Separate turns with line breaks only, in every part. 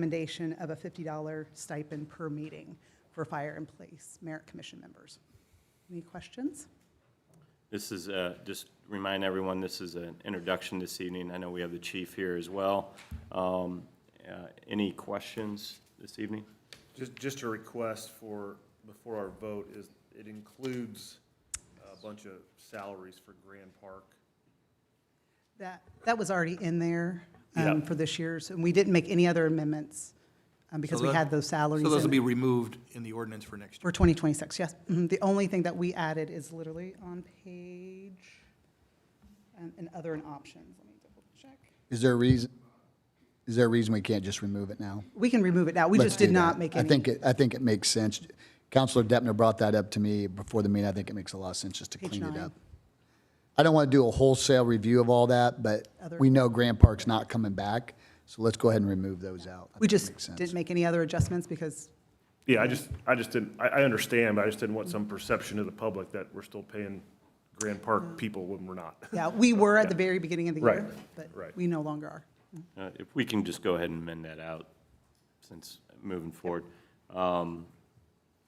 recommendation of a $50 stipend per meeting for fire and police merit commission members. Any questions?
This is, uh, just remind everyone, this is an introduction this evening. I know we have the chief here as well. Um, uh, Any questions this evening?
Just, just a request for, before our vote, is it includes a bunch of salaries for Grand Park.
That, that was already in there um,
Yeah.
for this year's, and we didn't make any other amendments um, because we
that-
had those salaries.
So those will
in-
be removed in the ordinance for next year.
For 2026, yes. Mhm. The only thing that we added is literally on page, um, and other and options. Let me double check.
Is there a reason, is there a reason we can't just remove it now?
We can remove it now. We
Let's
just did
do
not
that.
make
I
any.
think, it- I think it makes sense. Counselor Deppner brought that up to me before the meeting. I think it makes a lot of sense just to
Page
clean it
nine.
up. I don't want to do a wholesale review of all that, but
Other-
we know Grand Park's not coming back, so let's go ahead and remove those out. I
We
think it
just
makes sense.
didn't make any other adjustments because
Yeah, I just, I just didn't, I, I understand, but I just didn't want some perception to the public that we're still paying Grand Park people when we're not.
Yeah, we were at the very beginning of the
Right,
year, but
right.
we no longer are.
Uh, If we can just go ahead and mend that out, since moving forward. Um,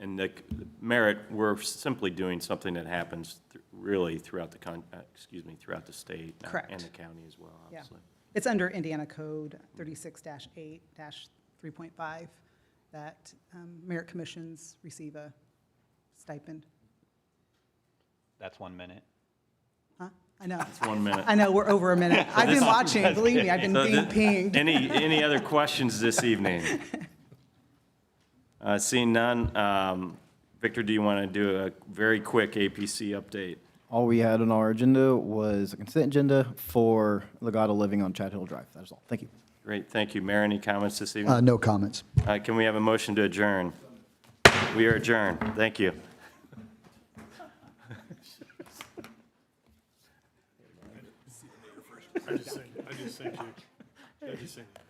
And the the merit, we're simply doing something that happens th- really throughout the, con- uh, excuse me, throughout the state. uh, And
Correct.
the county as well,
Yeah.
obviously.
It's under Indiana Code 36-8-3.5 that um, merit commissions receive a stipend.
That's one minute.
Huh? I know,
One minute.
I know, we're over a minute. I've been watching, believe me, I've been
So
being
thi-
pinged.
Any, any other questions this evening? Uh, Seeing none, um, Victor, do you want to do a very quick APC update?
All we had on our agenda was a consent agenda for Legato Living on Chad Hill Drive. That is all. Thank you.
Great, thank you. Mayor, any comments this evening?
Uh, no comments.
Uh, Can we have a motion to adjourn? We are adjourned. Thank you.
I just sent, I just sent you, I just sent you.